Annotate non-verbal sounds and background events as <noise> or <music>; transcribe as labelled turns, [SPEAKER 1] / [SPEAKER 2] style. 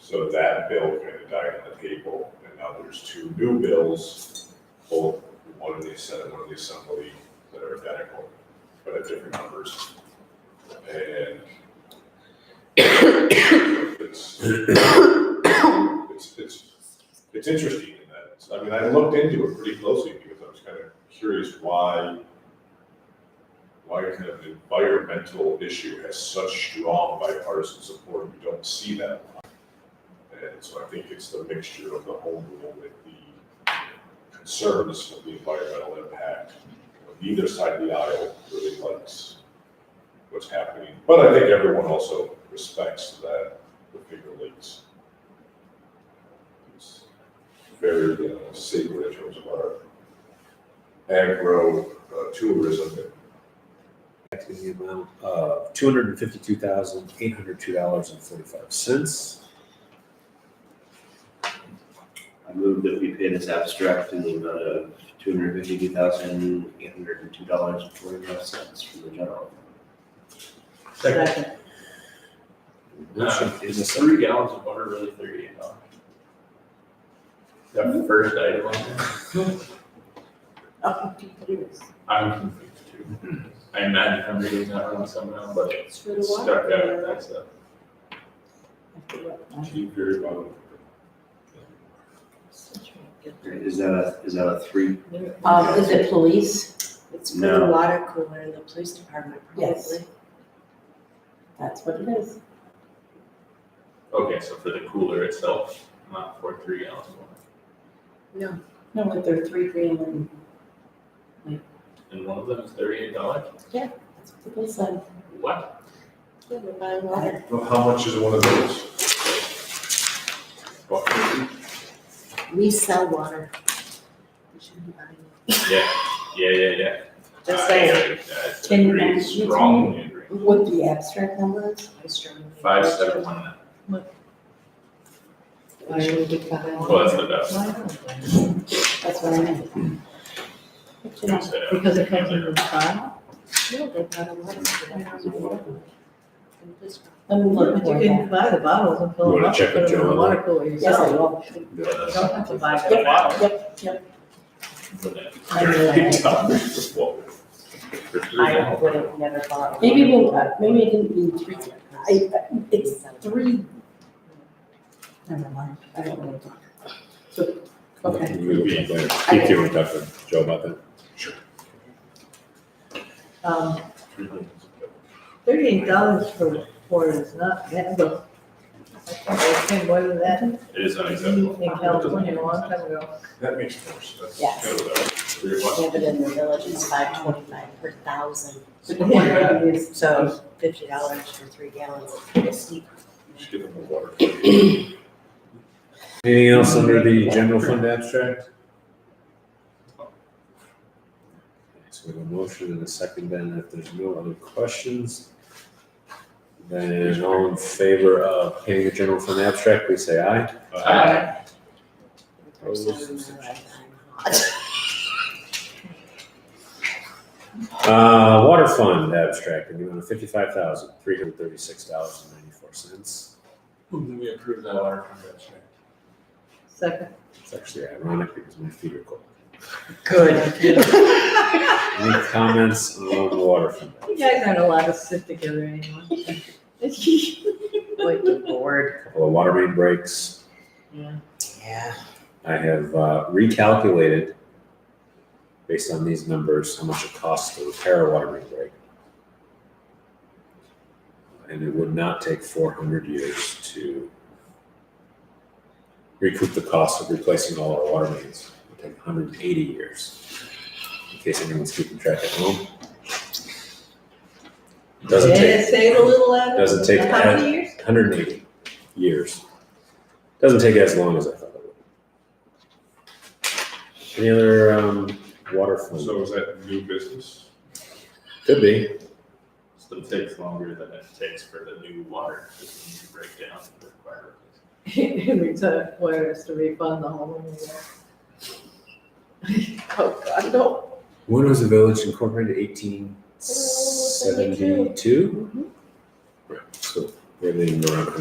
[SPEAKER 1] So that bill kind of died on the table, and now there's two new bills, both, one in the Senate, one in the Assembly, that are identical, but at different numbers. And it's, it's, it's, it's interesting in that, it's- I mean, I looked into it pretty closely because I was kind of curious why, why kind of an environmental issue has such strong bipartisan support, we don't see that a lot. And so I think it's the mixture of the home rule with the concerns of the environmental impact. Neither side of the aisle really likes what's happening, but I think everyone also respects that the Finger Lakes it's very, you know, sacred in terms of our agro uh, tourism.
[SPEAKER 2] in the amount of two hundred and fifty-two thousand, eight hundred two dollars and forty-five cents.
[SPEAKER 3] I move that we pay this abstract in the amount of two hundred fifty-two thousand, eight hundred and two dollars and forty-five cents from the general.
[SPEAKER 4] Second.
[SPEAKER 2] Motion is a second.
[SPEAKER 5] Three gallons of water, really thirty-eight dollars. That first item on there,
[SPEAKER 4] Up to two years.
[SPEAKER 5] I'm confused too. I imagine if I'm reading that wrong somehow, but
[SPEAKER 4] It's for the
[SPEAKER 5] it's
[SPEAKER 4] water.
[SPEAKER 5] stuck out with that stuff.
[SPEAKER 4] I forgot my-
[SPEAKER 1] Keep very well.
[SPEAKER 3] Is that a, is that a three?
[SPEAKER 6] Um, is it police?
[SPEAKER 7] It's for the
[SPEAKER 3] No.
[SPEAKER 7] water cooler in the police department,
[SPEAKER 4] Yes.
[SPEAKER 7] probably.
[SPEAKER 4] That's what it is.
[SPEAKER 5] Okay, so for the cooler itself, not for three gallons of water.
[SPEAKER 4] No, but they're three grand and,
[SPEAKER 5] And one of them is thirty-eight dollars?
[SPEAKER 4] that's what the bill said.
[SPEAKER 5] What?
[SPEAKER 7] Yeah, we're buying water.
[SPEAKER 1] Well, How much is one of those?
[SPEAKER 5] What?
[SPEAKER 7] We sell water. We shouldn't be buying it.
[SPEAKER 5] Yeah, yeah, yeah, yeah.
[SPEAKER 7] Just
[SPEAKER 5] I-
[SPEAKER 7] saying,
[SPEAKER 5] I- I
[SPEAKER 4] Can you
[SPEAKER 5] agree
[SPEAKER 4] imagine?
[SPEAKER 5] strongly agree.
[SPEAKER 4] What the abstract number is?
[SPEAKER 7] I strongly.
[SPEAKER 5] Five, seven, one, nine.
[SPEAKER 7] Why should we buy
[SPEAKER 5] Well,
[SPEAKER 7] water?
[SPEAKER 5] that's the best.
[SPEAKER 7] Why not?
[SPEAKER 4] That's what I meant.
[SPEAKER 5] Because it comes in.
[SPEAKER 7] No, they got a lot of stuff. In this one.
[SPEAKER 4] Let me
[SPEAKER 6] Well,
[SPEAKER 4] look
[SPEAKER 6] but you
[SPEAKER 4] for
[SPEAKER 6] can
[SPEAKER 4] that.
[SPEAKER 6] buy the bottles and fill
[SPEAKER 1] You
[SPEAKER 6] them
[SPEAKER 1] wanna
[SPEAKER 6] up, and
[SPEAKER 1] check
[SPEAKER 6] put
[SPEAKER 1] with
[SPEAKER 6] them in
[SPEAKER 1] Joe
[SPEAKER 6] the
[SPEAKER 1] on
[SPEAKER 6] water cooler
[SPEAKER 4] Yes, I
[SPEAKER 6] yourself.
[SPEAKER 4] will.
[SPEAKER 6] You don't have to buy
[SPEAKER 4] Yep,
[SPEAKER 6] the bottle.
[SPEAKER 4] yep, yep. I
[SPEAKER 1] Very
[SPEAKER 4] know.
[SPEAKER 1] tough. Well,
[SPEAKER 5] For three
[SPEAKER 6] I
[SPEAKER 5] gallons.
[SPEAKER 6] would have never bought.
[SPEAKER 4] Maybe it didn't, uh, maybe it didn't mean three. I, it's three. Never mind, I don't know. what to talk. So, okay.
[SPEAKER 1] We'll be there.
[SPEAKER 4] Keep
[SPEAKER 1] doing tough, Joe, about that.
[SPEAKER 6] Um, thirty-eight dollars for four is not, that was, I think more than that in
[SPEAKER 5] It is unacceptable.
[SPEAKER 6] California a long time ago.
[SPEAKER 1] That makes more sense.
[SPEAKER 7] Yes.
[SPEAKER 1] Go with that.
[SPEAKER 5] Three bucks.
[SPEAKER 7] Yeah, but in the village, it's five twenty-five per thousand.
[SPEAKER 6] So,
[SPEAKER 7] <laughs> So fifty dollars for three gallons is pretty steep.
[SPEAKER 1] Just give them the water.
[SPEAKER 2] Anything else under the general fund abstract? So we have a motion and a second, then if there's no other questions, then all in favor of paying the general fund abstract, please say aye.
[SPEAKER 5] Uh,
[SPEAKER 2] Oh,
[SPEAKER 7] First time in my life I'm hot.
[SPEAKER 2] Uh, water fund abstract, in the amount of fifty-five thousand, three hundred thirty-six dollars and ninety-four cents.
[SPEAKER 5] We approve that water convention.
[SPEAKER 6] second,
[SPEAKER 2] It's actually ironic because my feet are cold.
[SPEAKER 6] good.
[SPEAKER 2] <laughs> Any comments on the water fund?
[SPEAKER 6] You guys aren't allowed to sit together anymore.
[SPEAKER 7] Like the board.
[SPEAKER 2] Couple of water main breaks.
[SPEAKER 6] Yeah.
[SPEAKER 7] Yeah.
[SPEAKER 2] I have uh, recalculated based on these numbers how much it costs to repair a water main break. And it would not take 400 years to recoup the cost of replacing all our water mains. It would take 180 years, in case anyone's keeping track at home. It Doesn't
[SPEAKER 6] Did
[SPEAKER 2] take
[SPEAKER 6] it save a little out of?
[SPEAKER 2] doesn't take
[SPEAKER 6] How many years?
[SPEAKER 2] 180 years. Doesn't take as long as I thought it would. Any other um, water fund?
[SPEAKER 1] So is that new business?
[SPEAKER 2] Could be.
[SPEAKER 5] Still takes longer than it takes for the new water system to break down and require.
[SPEAKER 6] It requires to refund the whole. amount. Oh, God, no.
[SPEAKER 2] When was the village incorporated? 1872? So we haven't even been around for